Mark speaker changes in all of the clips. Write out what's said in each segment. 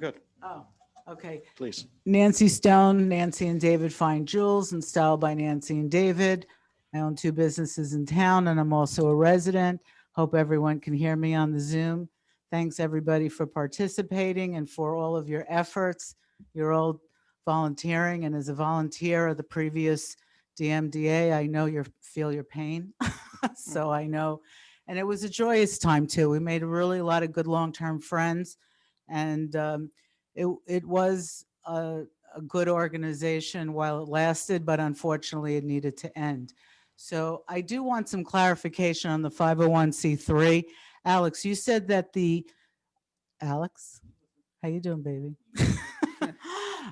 Speaker 1: Good,
Speaker 2: Oh, okay.
Speaker 1: please.
Speaker 2: Nancy Stone, Nancy and David Fine Jewels, and Style by Nancy and David. I own two businesses in town and I'm also a resident. Hope everyone can hear me on the Zoom. Thanks, everybody, for participating and for all of your efforts. You're all volunteering and as a volunteer of the previous DMDA, I know you feel your pain. So I know, and it was a joyous time too. We made really a lot of good long-term friends. And um, it, it was a, a good organization while it lasted, but unfortunately it needed to end. So I do want some clarification on the 501c3. Alex, you said that the, Alex, how you doing, baby?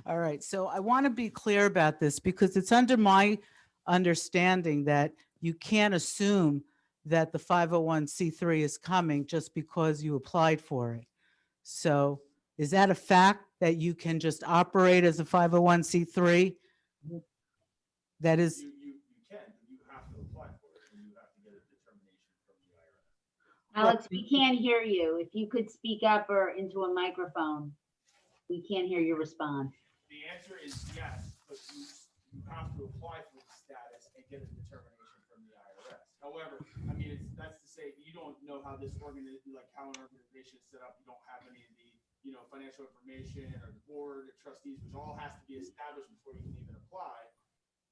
Speaker 2: All right, so I want to be clear about this because it's under my understanding that you can't assume that the 501c3 is coming just because you applied for it. So is that a fact that you can just operate as a 501c3? That is,
Speaker 3: You, you, you can, but you have to apply for it, and you have to get a determination from the IRS.
Speaker 4: Alex, we can't hear you. If you could speak up or into a microphone, we can't hear your response.
Speaker 3: The answer is yes, but you, you have to apply for the status and get a determination from the IRS. However, I mean, it's, that's to say, you don't know how this organization, like how an organization is set up, you don't have any of the, you know, financial information or the board, the trustees, which all has to be established before you can even apply.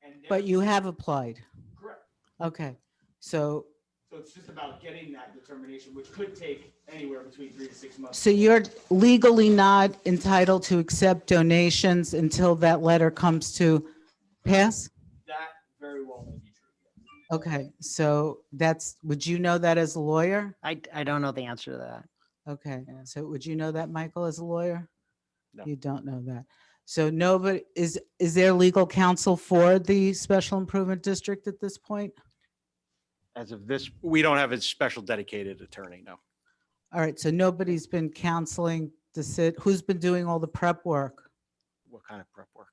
Speaker 3: And then-
Speaker 2: but you have applied.
Speaker 3: Correct.
Speaker 2: Okay, so,
Speaker 3: So it's just about getting that determination, which could take anywhere between three to six months.
Speaker 2: so you're legally not entitled to accept donations until that letter comes to pass?
Speaker 3: That very well may be true. yes.
Speaker 2: Okay, so that's, would you know that as a lawyer?
Speaker 5: I, I don't know the answer to that.
Speaker 2: Okay,
Speaker 5: Yeah.
Speaker 2: so would you know that, Michael, as a lawyer?
Speaker 1: No.
Speaker 2: You don't know that. So nobody, is, is there legal counsel for the special improvement district at this point?
Speaker 1: As of this, we don't have a special dedicated attorney, no.
Speaker 2: All right, so nobody's been counseling the sit, who's been doing all the prep work?
Speaker 1: What kind of prep work?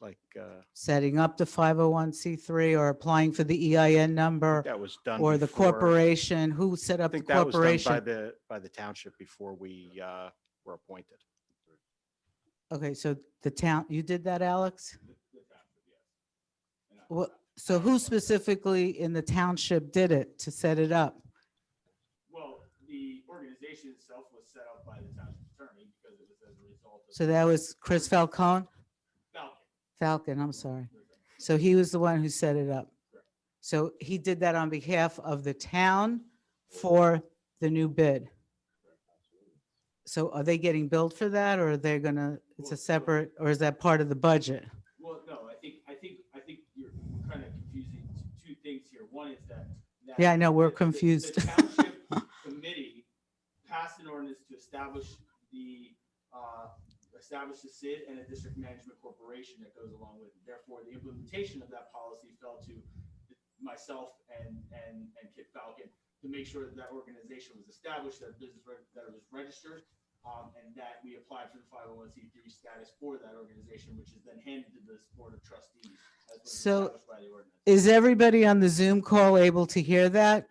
Speaker 1: Like, uh,
Speaker 2: Setting up the 501c3 or applying for the EIN number
Speaker 1: that was done.
Speaker 2: or the
Speaker 1: before-
Speaker 2: corporation? Who set
Speaker 1: I
Speaker 2: up the
Speaker 1: think that was done by
Speaker 2: corporation?
Speaker 1: the, by the township before we uh, were appointed.
Speaker 2: Okay, so the town, you did that, Alex?
Speaker 3: The fact that yes. And I-
Speaker 2: What, so who specifically in the township did it to set it up?
Speaker 3: Well, the organization itself was set up by the township attorney because it was as a result of.
Speaker 2: So that was Chris Falcone?
Speaker 3: Falcon.
Speaker 2: Falcon, I'm sorry. So he was the one who set it up. So he did that on behalf of the town for the new bid. So are they getting billed for that or are they gonna, it's a separate, or is that part of the budget?
Speaker 3: Well, no, I think, I think, I think you're kind of confusing t- two things here. One is that. that
Speaker 2: Yeah, I know, we're
Speaker 3: the- the- the
Speaker 2: confused.
Speaker 3: township Committee passed an ordinance to establish the, uh, establish the SID and a district management corporation that goes along with it. Therefore, the implementation of that policy fell to myself and, and, and Kit Falcon to make sure that that organization was established, that business, reg- that it was registered, um, and that we applied for the five oh one C three status for that organization, which is then handed to this board of trustees. as was
Speaker 2: So-
Speaker 3: established by the ordinance.
Speaker 2: Is everybody on the Zoom call able to hear that?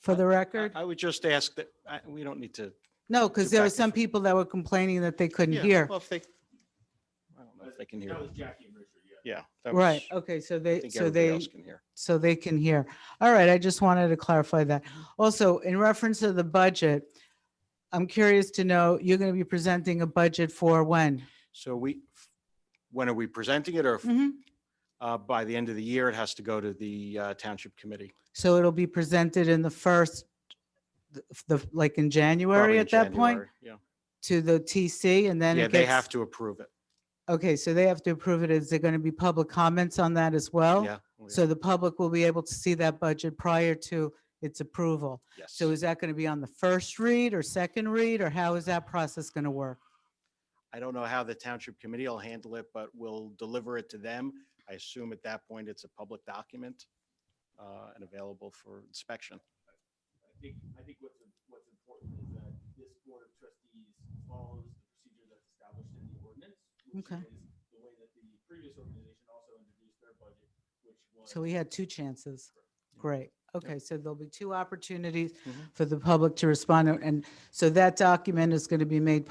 Speaker 2: For the
Speaker 1: I
Speaker 2: record?
Speaker 1: I would just ask that, I- we don't need to.
Speaker 2: No,
Speaker 1: Go
Speaker 2: because there were
Speaker 1: back and
Speaker 2: some
Speaker 1: forth.
Speaker 2: people that were complaining that they couldn't
Speaker 1: Yeah,
Speaker 2: hear.
Speaker 1: Well, if they, I don't know if they can hear.
Speaker 3: That was Jackie and Richard, yeah.
Speaker 1: Yeah. that
Speaker 2: Right,
Speaker 1: was-
Speaker 2: okay, so
Speaker 1: I
Speaker 2: they,
Speaker 1: think
Speaker 2: so
Speaker 1: everybody
Speaker 2: they,
Speaker 1: else can hear.
Speaker 2: so they can hear. All right, I just wanted to clarify that. Also, in reference to the budget, I'm curious to know, you're going to be presenting a budget for when?
Speaker 1: So we, when are we presenting it
Speaker 2: Hmm.
Speaker 1: or uh, by the end of the year, it has to go to the uh, township committee?
Speaker 2: So it'll be presented in the first, the- the, like in
Speaker 1: probably
Speaker 2: January
Speaker 1: in
Speaker 2: at that point,
Speaker 1: January, Yeah.
Speaker 2: to the TC and then
Speaker 1: Yeah,
Speaker 2: it
Speaker 1: they have
Speaker 2: gets,
Speaker 1: to approve it.
Speaker 2: okay, so they have to approve it. Is there going to be public comments on that as well?
Speaker 1: Yeah. oh, yeah,
Speaker 2: So the public will be able to see that budget prior to its approval.
Speaker 1: Yes.
Speaker 2: So is that going to be on the first read or second read, or how is that process going to work?
Speaker 1: I don't know how the township committee will handle it, but we'll deliver it to them. I assume at that point, it's a public document uh, and available for inspection.
Speaker 3: I think, I think what's, what's important is that this board of trustees follows the procedure that's established in the ordinance, which
Speaker 2: Okay.
Speaker 3: is the way that the previous organization also introduced their budget, which was.
Speaker 2: So we had two chances. Great. Okay, so there'll be two opportunities
Speaker 1: Mhm.
Speaker 2: for the public to respond. And so that document is going to be made